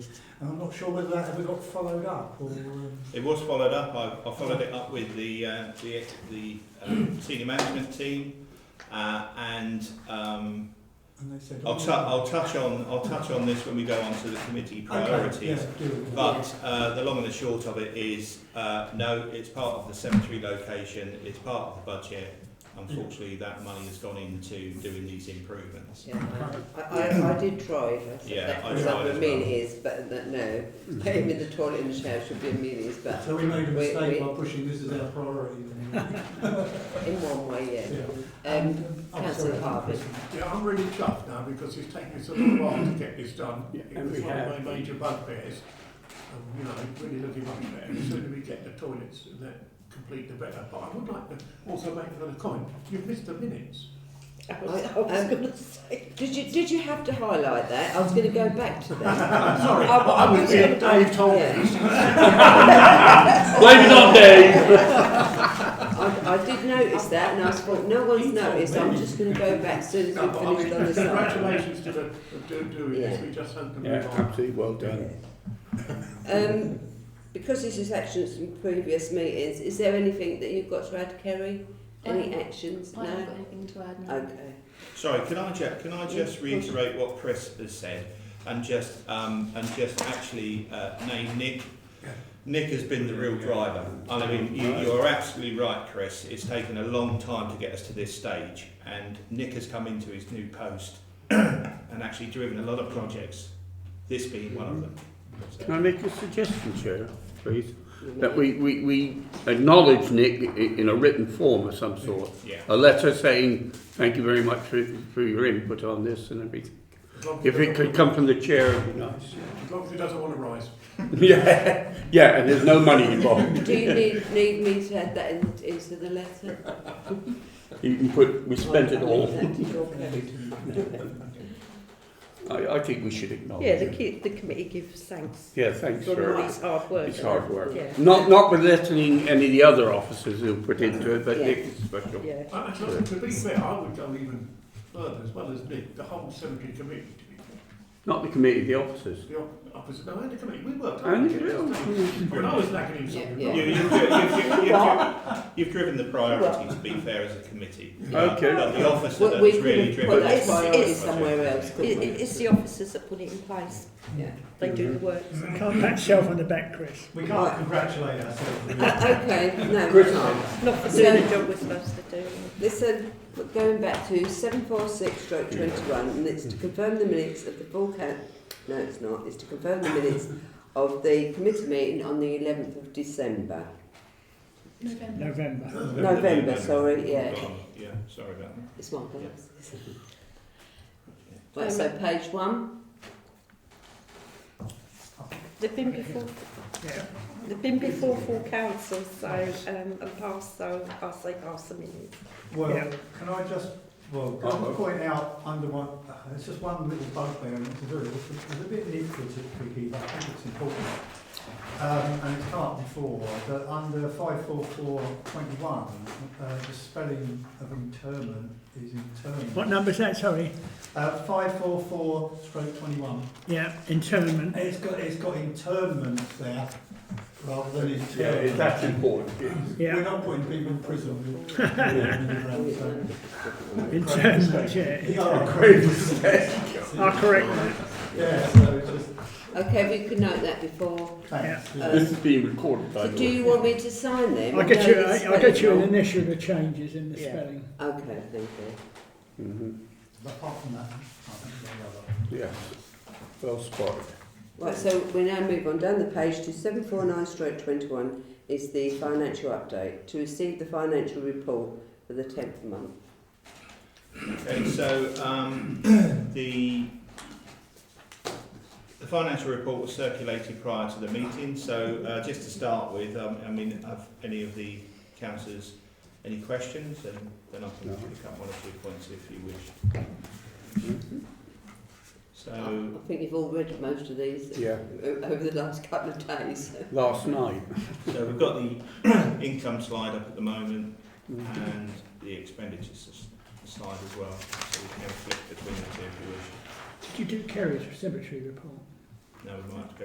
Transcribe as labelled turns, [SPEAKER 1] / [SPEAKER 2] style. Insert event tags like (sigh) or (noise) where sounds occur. [SPEAKER 1] And I'm not sure whether that ever got followed up or... Um,
[SPEAKER 2] It was followed up. I, I followed it up with the uh, the, the um, senior management team, uh, and um,
[SPEAKER 1] and they said... "Oh,
[SPEAKER 2] I'll, tu- I'll touch on I'll touch on this when we go on to the committee priorities.
[SPEAKER 1] Okay, yeah, do it.
[SPEAKER 2] But uh, the long and the short of it is, uh, no, it's part of the cemetery location, it's part of the budget. Unfortunately, that money has gone into doing these improvements.
[SPEAKER 3] Yeah, I, I, I did try it. I said
[SPEAKER 2] Yeah,
[SPEAKER 3] that
[SPEAKER 2] I
[SPEAKER 3] was
[SPEAKER 2] tried
[SPEAKER 3] up
[SPEAKER 2] as
[SPEAKER 3] in
[SPEAKER 2] well.
[SPEAKER 3] Amelia's, but that, no. Paying with the toilet in the shower should be Amelia's, but
[SPEAKER 1] So we made a
[SPEAKER 3] We-
[SPEAKER 1] mistake
[SPEAKER 3] we-
[SPEAKER 1] by pushing this as our priority. then.
[SPEAKER 3] in one way,
[SPEAKER 1] Yeah.
[SPEAKER 3] yeah. Um,
[SPEAKER 1] I'm
[SPEAKER 3] Councillor
[SPEAKER 1] sorry,
[SPEAKER 3] Harvey.
[SPEAKER 4] Yeah, I'm really chuffed now because it's taken us a little while to get this done.
[SPEAKER 5] Yeah,
[SPEAKER 4] It
[SPEAKER 5] and
[SPEAKER 4] was
[SPEAKER 5] we
[SPEAKER 4] one
[SPEAKER 5] have.
[SPEAKER 4] of my major bugbears. Um, you know, it's really looking much better. The sooner we get the toilets and that complete, the better. But I would like to also make another comment. You've missed the
[SPEAKER 5] (laughs)
[SPEAKER 4] minutes.
[SPEAKER 3] I was, going to say. Um, Did you, did you have to highlight that? I was going to go back to (laughs) that.
[SPEAKER 4] I'm sorry,
[SPEAKER 3] I-
[SPEAKER 4] but I was
[SPEAKER 3] yeah.
[SPEAKER 4] here. Dave told me.
[SPEAKER 3] Yeah. (laughs)
[SPEAKER 5] Blame it on Dave!
[SPEAKER 3] I, I did notice that, and I thought, no one's noticed. I'm just going to go back as soon as
[SPEAKER 4] No,
[SPEAKER 3] we've
[SPEAKER 4] but I
[SPEAKER 3] finished on
[SPEAKER 4] mean,
[SPEAKER 3] this item.
[SPEAKER 4] congratulations to the, to doing this.
[SPEAKER 3] Yeah.
[SPEAKER 4] We just had to
[SPEAKER 5] Yeah,
[SPEAKER 4] move on.
[SPEAKER 5] absolutely, well done.
[SPEAKER 3] Um, because this is actions from previous meetings, is there anything that you've got to add, Kerry? Any actions?
[SPEAKER 6] I haven't
[SPEAKER 3] No?
[SPEAKER 6] got anything to add now.
[SPEAKER 3] Okay.
[SPEAKER 2] Sorry, can I just, can I just reiterate what Chris has said and just, um, and just actually uh, name Nick? Nick has been the real driver. I mean, you, you are absolutely right, Chris. It's taken a long time to get us to this stage, and Nick has come into his new post (clears throat) and actually driven a lot of projects, this being one of them. So-
[SPEAKER 5] Can I make a suggestion, Chair, please?
[SPEAKER 3] You
[SPEAKER 5] That
[SPEAKER 3] may-
[SPEAKER 5] we, we, we acknowledge Nick i- in a written form of some sort.
[SPEAKER 2] Yeah.
[SPEAKER 5] A letter saying, thank you very much for, for your input on this and everything.
[SPEAKER 4] As long as
[SPEAKER 5] If
[SPEAKER 4] he
[SPEAKER 5] it could
[SPEAKER 4] doesn't-
[SPEAKER 5] come from the chair, it'd be nice. (laughs)
[SPEAKER 4] As long as he doesn't want to rise.
[SPEAKER 5] Yeah, yeah, and there's no money involved.
[SPEAKER 3] Do you need, need me to add that in, into the letter?
[SPEAKER 5] You can put, we spent it
[SPEAKER 3] I'll
[SPEAKER 5] all.
[SPEAKER 3] leave that to your (laughs) code.
[SPEAKER 5] I, I think we should acknowledge
[SPEAKER 7] Yeah, the,
[SPEAKER 5] it.
[SPEAKER 7] ki- the committee gives thanks
[SPEAKER 5] Yeah, thanks,
[SPEAKER 7] for all
[SPEAKER 5] sir.
[SPEAKER 7] his hard work.
[SPEAKER 5] It's hard work.
[SPEAKER 7] Yeah.
[SPEAKER 5] Not, not belittling any of the other officers who put into it, but
[SPEAKER 3] Yeah.
[SPEAKER 5] Nick is special.
[SPEAKER 7] Yeah.
[SPEAKER 4] I- I think to be fair, I would go even further as well as Nick, the whole cemetery committee, to be fair.
[SPEAKER 5] Not the committee, the officers.
[SPEAKER 4] The op- opposite, no, and the committee, we worked. hard
[SPEAKER 5] And
[SPEAKER 4] to
[SPEAKER 5] it
[SPEAKER 4] get this
[SPEAKER 5] will.
[SPEAKER 4] done. When I was lacking in something,
[SPEAKER 3] Yeah,
[SPEAKER 2] You,
[SPEAKER 4] right?
[SPEAKER 2] you've, you've, you've, you've, you've, you've driven the priority, to be fair, as a committee.
[SPEAKER 5] Okay.
[SPEAKER 2] But the officer
[SPEAKER 3] Well, we
[SPEAKER 2] that's really
[SPEAKER 3] could
[SPEAKER 2] driven
[SPEAKER 3] put
[SPEAKER 2] the
[SPEAKER 3] that priority
[SPEAKER 2] project.
[SPEAKER 3] somewhere else,
[SPEAKER 7] It,
[SPEAKER 3] couldn't
[SPEAKER 7] it,
[SPEAKER 3] we?
[SPEAKER 7] it's the officers that put it in place.
[SPEAKER 3] Yeah.
[SPEAKER 7] They do the work.
[SPEAKER 8] Can't pat yourself on the back, Chris.
[SPEAKER 1] We can't congratulate ourselves.
[SPEAKER 3] Uh, (laughs) Okay, no.
[SPEAKER 5] Chris.
[SPEAKER 3] no.
[SPEAKER 6] Mm-hmm.
[SPEAKER 7] Not for doing the job we're supposed to do.
[SPEAKER 3] Listen, we're going back to 746 stroke 21, and it's to confirm the minutes of the full count. No, it's not. It's to confirm the minutes of the committee meeting on the 11th of December.
[SPEAKER 6] November.
[SPEAKER 8] November.
[SPEAKER 3] November, sorry, yeah.
[SPEAKER 2] Gone. Yeah, sorry about that.
[SPEAKER 3] It's my glasses. Right, so page one.
[SPEAKER 7] They've been before,
[SPEAKER 8] Yeah.
[SPEAKER 7] they've been before full council, so, um, and passed, so I'll say pass them in.
[SPEAKER 1] Well,
[SPEAKER 8] Yeah.
[SPEAKER 1] can I just, well, can I
[SPEAKER 5] Uh-oh.
[SPEAKER 1] point out under one, uh, it's just one little bugbear, and it's a very, it's a bit nitpicky, but I think it's important. Um, and it's part before, but under five four four twenty one, uh, the spelling of interment is
[SPEAKER 8] What
[SPEAKER 1] interment.
[SPEAKER 8] number's that, sorry?
[SPEAKER 1] Uh, five four four stroke twenty one.
[SPEAKER 8] Yeah, internment.
[SPEAKER 1] It's got, it's got internment there, rather than interment.
[SPEAKER 5] that's important.
[SPEAKER 1] We're
[SPEAKER 8] Yeah,
[SPEAKER 1] not putting people in
[SPEAKER 5] (laughs)
[SPEAKER 1] prison. So-
[SPEAKER 8] internment, yeah.
[SPEAKER 1] Yeah,
[SPEAKER 8] I'll correct that.
[SPEAKER 1] Yeah, so just,
[SPEAKER 3] Okay, if you could note that before.
[SPEAKER 1] thanks.
[SPEAKER 3] Yeah.
[SPEAKER 5] This is being recorded, by
[SPEAKER 3] So
[SPEAKER 5] the
[SPEAKER 3] do
[SPEAKER 5] way.
[SPEAKER 3] you want me to sign them?
[SPEAKER 8] I'll get you,
[SPEAKER 3] No, it's
[SPEAKER 8] I'll get you an
[SPEAKER 3] spelled
[SPEAKER 8] initial of the changes in the
[SPEAKER 3] Yeah.
[SPEAKER 8] spelling.
[SPEAKER 3] wrong. Okay, thank you.
[SPEAKER 5] Mhm,
[SPEAKER 1] But apart from that, I think they're all right.
[SPEAKER 5] Yes, well spotted.
[SPEAKER 3] Right, so we now move on down the page to 749 stroke 21 is the financial update to receive the financial report for the 10th month.
[SPEAKER 2] Okay, so um, (clears throat) the the financial report was circulated prior to the meeting. So uh, just to start with, um, I mean, have any of the councillors any questions? And then I can
[SPEAKER 5] No.
[SPEAKER 2] pick up one or two points if you wish. So Um,
[SPEAKER 3] I think you've all read most of these
[SPEAKER 5] Yeah,
[SPEAKER 3] o- (laughs) over the last couple of days.
[SPEAKER 5] last night.
[SPEAKER 2] so we've got the (clears throat) income slide up at the moment
[SPEAKER 5] Mm.
[SPEAKER 2] and the expenditures s- slide as well. So we can have a flip between the two if you wish.
[SPEAKER 8] Did you do Kerry's cemetery report?
[SPEAKER 2] Now we might have to go